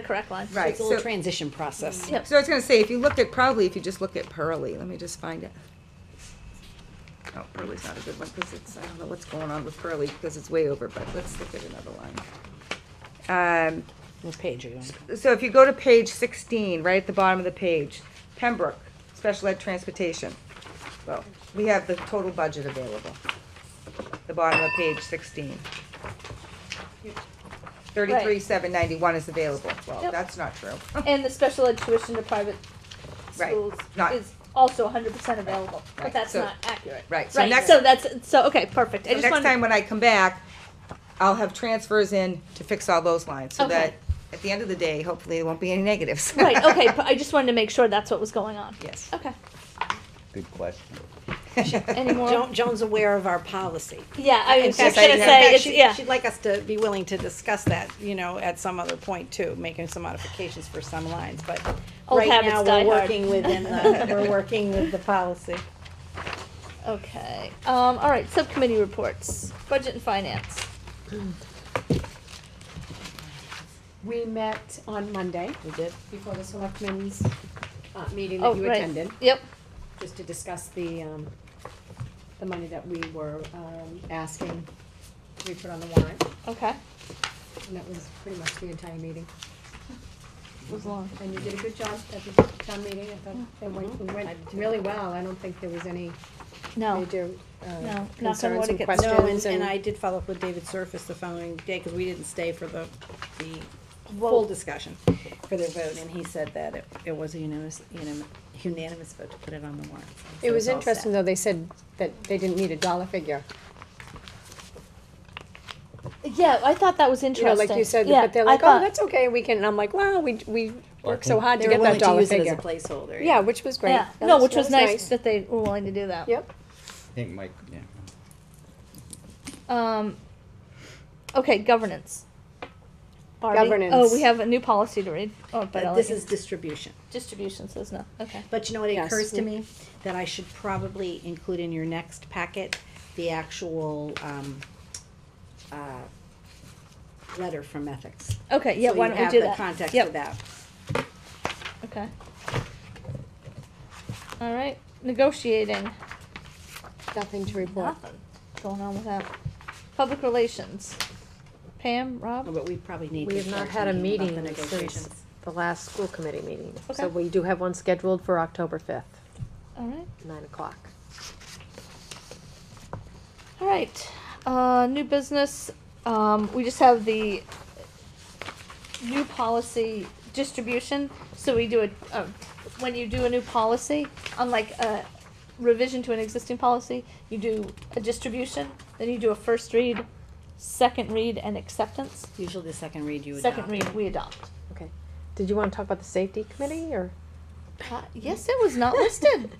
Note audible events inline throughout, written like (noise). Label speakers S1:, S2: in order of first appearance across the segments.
S1: the correct line.
S2: Right,
S3: It's a little
S2: so-
S3: transition process.
S1: Yep.
S2: So I was gonna say, if you looked at, probably if you just looked at Pearly, let me just find it. Oh, Pearly's not a good one, because it's, I don't know what's going on with Pearly, because it's way over, but let's look at another line. Um,
S3: What page are you on?
S2: so if you go to page sixteen, right at the bottom of the page, Pembroke, special ed transportation. Well, we have the total budget available, the bottom of page sixteen. Thirty-three, seven ninety-one is available, well,
S1: Yep.
S2: that's not true.
S1: And the special ed tuition to private
S2: Right,
S1: schools
S2: not-
S1: is also hundred percent available, but
S2: right,
S1: that's
S2: so-
S1: not accurate.
S2: right, so
S1: Right,
S2: next-
S1: so that's, so, okay, perfect. I
S2: So
S1: just
S2: next time (laughs)
S1: wanted,
S2: when I come back, I'll have transfers in to fix all those lines, so
S1: Okay.
S2: that, at the end of the day, hopefully there won't be any negatives.
S1: (laughs) right, okay, but I just wanted to make sure that's what was going on.
S2: (laughs) Yes.
S1: Okay,
S4: Good question.
S1: any more?
S5: Jo- Joan's aware of our policy.
S1: Yeah, I
S5: In
S1: was just
S5: fact,
S1: gonna
S5: in
S1: say,
S5: fact,
S1: it's,
S5: she-
S1: yeah,
S5: She'd like us to be willing to discuss that, you know, at some other point too, making some modifications for some lines, but
S1: Old
S5: right
S1: habits
S5: now,
S1: die
S5: we're
S1: hard.
S5: working
S1: (laughs)
S5: within the, we're working with the policy.
S1: okay. Um, all right, subcommittee reports, budget and finance.
S6: We met on Monday. We did. Before the selectmen's, uh, meeting
S1: Oh,
S6: that you
S1: right.
S6: attended,
S1: Yep,
S6: just to discuss the, um, the money that we were, um, asking to be put on the warrant,
S1: okay.
S6: and that was pretty much the entire meeting.
S1: It was long.
S6: And you did a good job at the town meeting, I thought it went, it went really well, I don't think there was any
S1: No,
S6: major,
S1: knock
S6: uh,
S1: on wood,
S6: concerns
S1: it
S6: and
S1: gets-
S6: questions
S1: No,
S5: No, and, and I did follow up with David Surface the following day, cause we didn't stay for the, the full discussion for their vote, and he said that it, it was a unanimous, unanim- unanimous vote to put it on the warrant. So
S6: It was
S5: it's all set.
S6: interesting, though, they said that they didn't need a dollar figure.
S1: yeah, I thought that was
S6: you
S1: interesting.
S6: know, like you said,
S1: Yeah,
S6: but they're
S1: I
S6: like, oh,
S1: thought-
S6: that's okay, we can, and I'm like, wow, we, we worked so hard
S5: They
S6: to
S5: were
S6: get that
S5: willing to
S6: dollar
S5: use it as a
S6: figure.
S5: placeholder.
S6: Yeah, which was great.
S1: Yeah,
S6: That
S1: no, which
S6: that
S1: was nice that they were willing to do that.
S6: Yep,
S4: I think Mike, yeah.
S1: Um, okay, governance. Barbie?
S6: Governance.
S1: Oh, we have a new policy to read. Oh, but
S5: But
S1: I'll
S5: Uh, this
S1: let
S5: is distribution.
S1: you- distribution says no. Okay.
S5: But you know, what, it
S6: Yes.
S5: occurs to me that I should probably include in your next packet the actual, um, uh, letter from ethics.
S1: Okay. Yeah.
S5: So
S1: why
S5: you
S1: don't we
S5: have
S1: do
S5: the
S1: that?
S5: Context
S1: Yep,
S5: of that.
S1: Okay. All right. Negotiating.
S6: nothing to report.
S1: Nothing going on with that. Public relations. Pam, Rob.
S5: Oh, But we probably need
S7: We
S5: to
S7: have not
S5: start
S7: had a
S5: thinking about
S7: meeting
S5: the
S7: since
S5: negotiations.
S7: the last school committee meeting.
S1: Okay.
S7: So we do have one scheduled for October fifth,
S1: All right.
S7: nine o'clock.
S1: All right. Uh, new business. Um, we just have the new policy distribution. So we do a, um, when you do a new policy, unlike a revision to an existing policy, you do a distribution, then you do a first read, second read, and acceptance.
S5: Usually the second read you adopt.
S1: Second read, we adopt.
S7: Okay. Did you wanna talk about the safety committee or?
S1: Uh, yes, it was not
S5: (laughs)
S1: listed.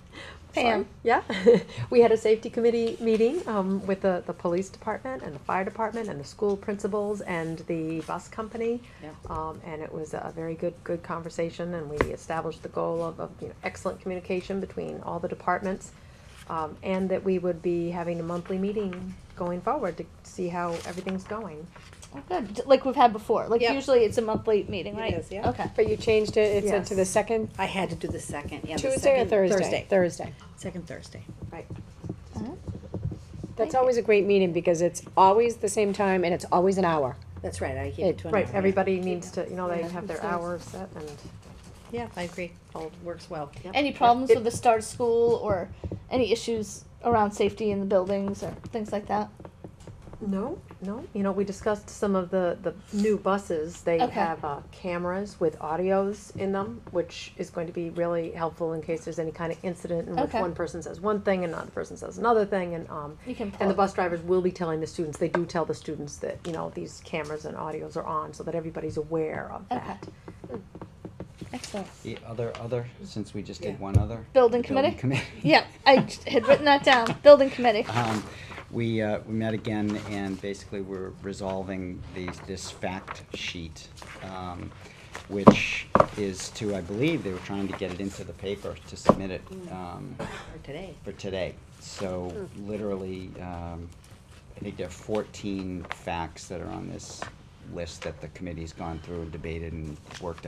S1: Pam.
S7: Yeah, (laughs) we had a safety committee meeting um, with the, the police department and the fire department and the school principals and the bus company.
S5: Yep.
S7: Um, and it was a very good, good conversation and we established the goal of, of, you know, excellent communication between all the departments. Um, and that we would be having a monthly meeting going forward to see how everything's going.
S1: Oh, good. D- Like we've had before. Like
S5: Yep.
S1: usually it's a monthly meeting, right?
S5: is, yeah.
S1: Okay.
S6: But you changed it, it's into the
S7: Yes.
S6: second
S5: I had to do the second, yeah, the
S6: Tuesday or
S5: second-
S6: Thursday? Thursday.
S5: Second Thursday.
S1: Thank
S6: That's
S1: you.
S6: always a great meeting, because it's always the same time and it's always an hour.
S5: That's right, I gave it
S6: It-
S5: to an
S7: Right,
S5: hour.
S7: everybody needs to, you know, they have their
S6: Yeah.
S7: hours set and.
S5: Yeah, I agree. All works well.
S1: Any problems with the start of school or any issues around safety in the buildings or things like that?
S7: No, no, you know, we discussed some of the, the new buses, they
S1: Okay.
S7: have, uh, cameras with audios in them, which is going to be really helpful in case there's any kind of incident in which
S1: Okay.
S7: one person says one thing and another person says another thing, and, um,
S1: You can
S7: and the
S1: pull.
S7: bus drivers will be telling the students, they do tell the students that, you know, these cameras and audios are on, so that everybody's aware of
S1: Okay.
S7: that.
S1: Excellent.
S4: The other, other, since we just
S5: Yeah.
S4: did one other.
S1: Building
S4: the
S1: committee?
S4: committee.
S1: (laughs) Yeah, I j- had written that down.
S4: (laughs)
S1: Building committee.
S4: Um, we, uh, we met again and basically we're resolving these, this fact sheet, um, which is to, I believe, they were trying to get it into the paper to submit it,
S1: Mm.
S4: um,
S5: For today.
S4: for today. So literally, um, I think there are fourteen facts that are on this list that the committee's gone through and debated and worked out.